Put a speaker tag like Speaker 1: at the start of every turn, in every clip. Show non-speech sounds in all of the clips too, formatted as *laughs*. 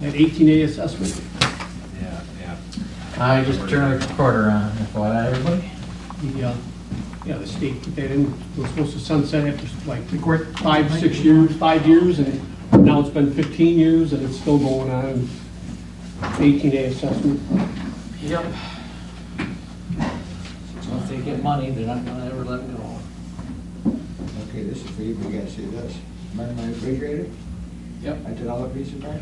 Speaker 1: an 18A assessment.
Speaker 2: Yeah, yeah.
Speaker 3: I just turned the recorder on, FYI, everybody.
Speaker 1: The, uh, yeah, the state put that in, it was supposed to sunset after like five, six years, five years, and now it's been 15 years and it's still going on. 18A assessment.
Speaker 4: Yep. Once they get money, they're not gonna ever let it go.
Speaker 5: Okay, this is for you, but you gotta see this. Remember my refrigerator?
Speaker 4: Yep.
Speaker 5: I did all the pieces back?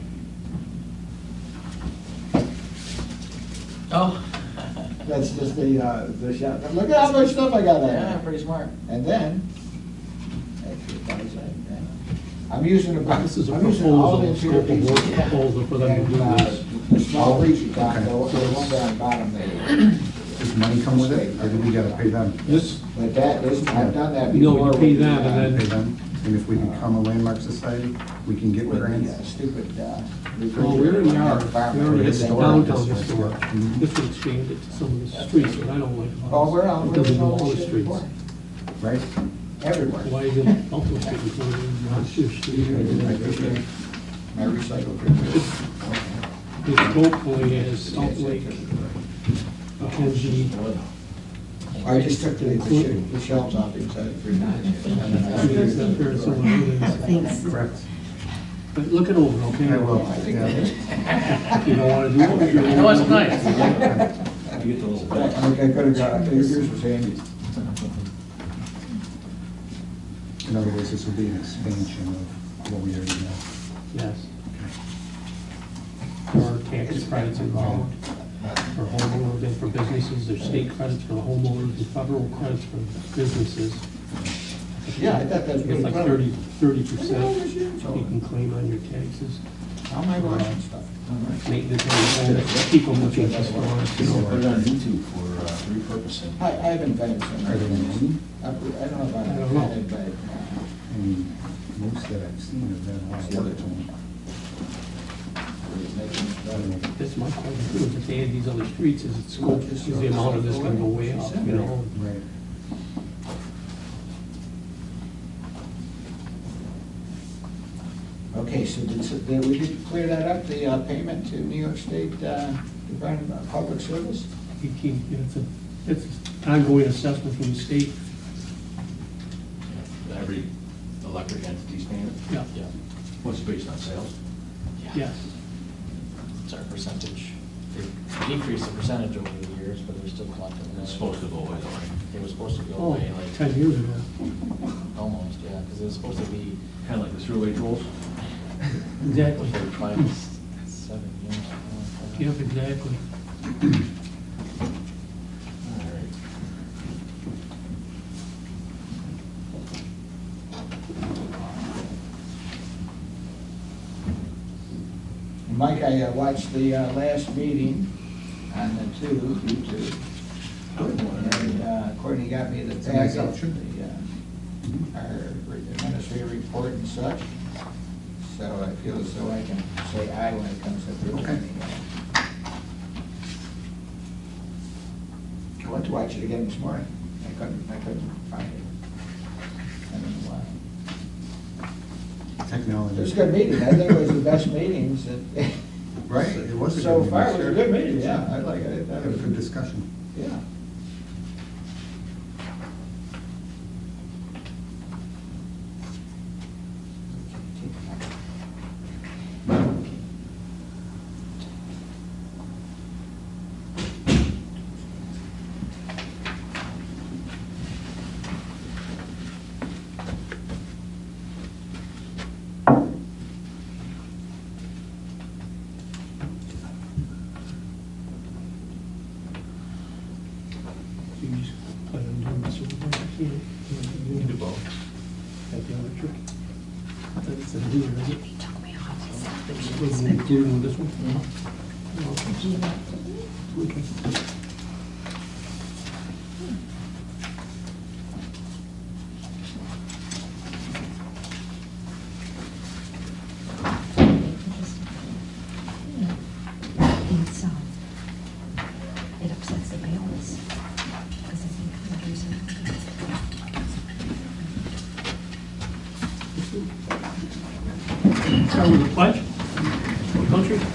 Speaker 4: Oh.
Speaker 5: That's just the, uh, the shop. Look at how much stuff I got
Speaker 4: Yeah,
Speaker 5: there.
Speaker 4: pretty smart.
Speaker 5: And then, actually, that was it, yeah. I'm using about,
Speaker 1: This is a
Speaker 5: I'm using all
Speaker 1: proposal,
Speaker 5: the
Speaker 1: a scope of work
Speaker 5: pieces.
Speaker 1: proposal for them to do
Speaker 5: And, uh,
Speaker 1: this.
Speaker 5: The small piece you got, the one the one down bottom there.
Speaker 6: Does money come with it, or do we gotta pay them?
Speaker 1: This,
Speaker 5: But that is, I've done that
Speaker 1: No,
Speaker 5: before.
Speaker 1: you pay
Speaker 5: with the,
Speaker 1: that,
Speaker 5: uh,
Speaker 1: and then-
Speaker 6: Pay them, and if we become a landmark society, we can get
Speaker 5: With the uh,
Speaker 6: grants.
Speaker 5: stupid, uh.
Speaker 1: well, we already
Speaker 5: refrigerator.
Speaker 1: are, we already have the
Speaker 6: Historic
Speaker 1: downtown
Speaker 6: district.
Speaker 1: historic.
Speaker 6: Mhm.
Speaker 1: This would change it to some of the streets, but I don't like. how
Speaker 5: Oh, we're out,
Speaker 1: It
Speaker 5: we're
Speaker 1: doesn't
Speaker 5: in
Speaker 1: go
Speaker 5: all
Speaker 1: all the
Speaker 5: this shit
Speaker 1: streets.
Speaker 5: before.
Speaker 6: Right?
Speaker 5: Everywhere.
Speaker 1: Why is it
Speaker 5: *laughs*
Speaker 1: Elton Street is not in Rochester Street?
Speaker 5: My recycled refrigerator.
Speaker 1: This hopefully has Salt Lake, Kenji,
Speaker 5: I just took the, the shit- the shelves off uh, inside the
Speaker 1: I mean, it's not fair to some of
Speaker 5: refrigerator.
Speaker 1: the others.
Speaker 7: Thanks.
Speaker 6: Correct.
Speaker 1: But look it over, okay?
Speaker 6: I will.
Speaker 5: I think that
Speaker 6: yeah.
Speaker 5: is.
Speaker 1: If you don't wanna do it. if you don't
Speaker 4: I know it's
Speaker 1: wanna do it.
Speaker 4: nice.
Speaker 5: I think I could've got, uh, yours was handy.
Speaker 6: In other words, this will be an expansion of what we already know.
Speaker 1: Yes. There are tax credits involved for homeowners and for businesses, there's state credits for the homeowners and federal credits for businesses.
Speaker 5: Yeah, I thought that was
Speaker 1: It's
Speaker 5: pretty
Speaker 1: like
Speaker 5: clever.
Speaker 1: thirty, thirty percent you can claim on your taxes.
Speaker 5: How am I watching stuff? All right.
Speaker 1: Maintenance on your home, people looking at us, you
Speaker 2: So
Speaker 1: know.
Speaker 2: put it on YouTube for uh, repurposing.
Speaker 5: I, I haven't invented some.
Speaker 6: Are there many?
Speaker 5: I I don't know if I
Speaker 1: I don't know.
Speaker 5: have invented.
Speaker 6: I mean, most that I've seen have been a lot of work to them. I don't know.
Speaker 1: That's my question, too, if they add these other streets, is it scope, is the amount of this gonna go way up, you know?
Speaker 6: Right.
Speaker 5: uh, Okay, so did, so did we did clear that up, the uh, payment to New York State uh, Department of Public Service?
Speaker 1: You keep, it's a, it's an ongoing assessment from the state,
Speaker 2: Every electric entity's paying it?
Speaker 1: Yeah.
Speaker 2: Yeah. What's based on sales?
Speaker 1: yes.
Speaker 4: It's our percentage. They decreased the percentage over the years, but they're still collecting. it.
Speaker 2: It's supposed to go away, though, right?
Speaker 4: It was supposed to go
Speaker 1: Oh,
Speaker 4: away,
Speaker 1: ten
Speaker 4: like,
Speaker 1: years ago.
Speaker 4: almost, yeah, because it was supposed to be
Speaker 2: Kind of like the throughway tolls?
Speaker 1: Exactly.
Speaker 4: *laughs* for five, seven years. something like that.
Speaker 1: Yep, exactly.
Speaker 2: All right.
Speaker 5: Mike, I uh, watched the uh, last meeting on the two, you two. And uh, Courtney got me the
Speaker 6: a nice
Speaker 5: packet,
Speaker 6: option.
Speaker 5: the, uh, our administrative report and such. So I feel as though I can say aye when it comes to the
Speaker 6: Okay.
Speaker 5: meeting. I went to watch it again this morning. I couldn't, I couldn't find it. I don't know why.
Speaker 6: Technology.
Speaker 5: It was a good meeting. I think it was the best meetings that.
Speaker 6: *laughs* Right, it was a good
Speaker 5: So
Speaker 6: meeting.
Speaker 5: far, it was a good meeting, yeah. I like it. I
Speaker 6: Had
Speaker 5: thought
Speaker 6: a
Speaker 5: it was-
Speaker 6: good discussion.
Speaker 5: Yeah.
Speaker 1: So you just plan on doing this over there, you know? You can do both. At the other trick. That's a deer, is it?
Speaker 7: took me off his
Speaker 1: Was it included with this one? Oh, okay.
Speaker 7: And so, it upsets the balance, because I think others
Speaker 1: Start with the pledge. Country.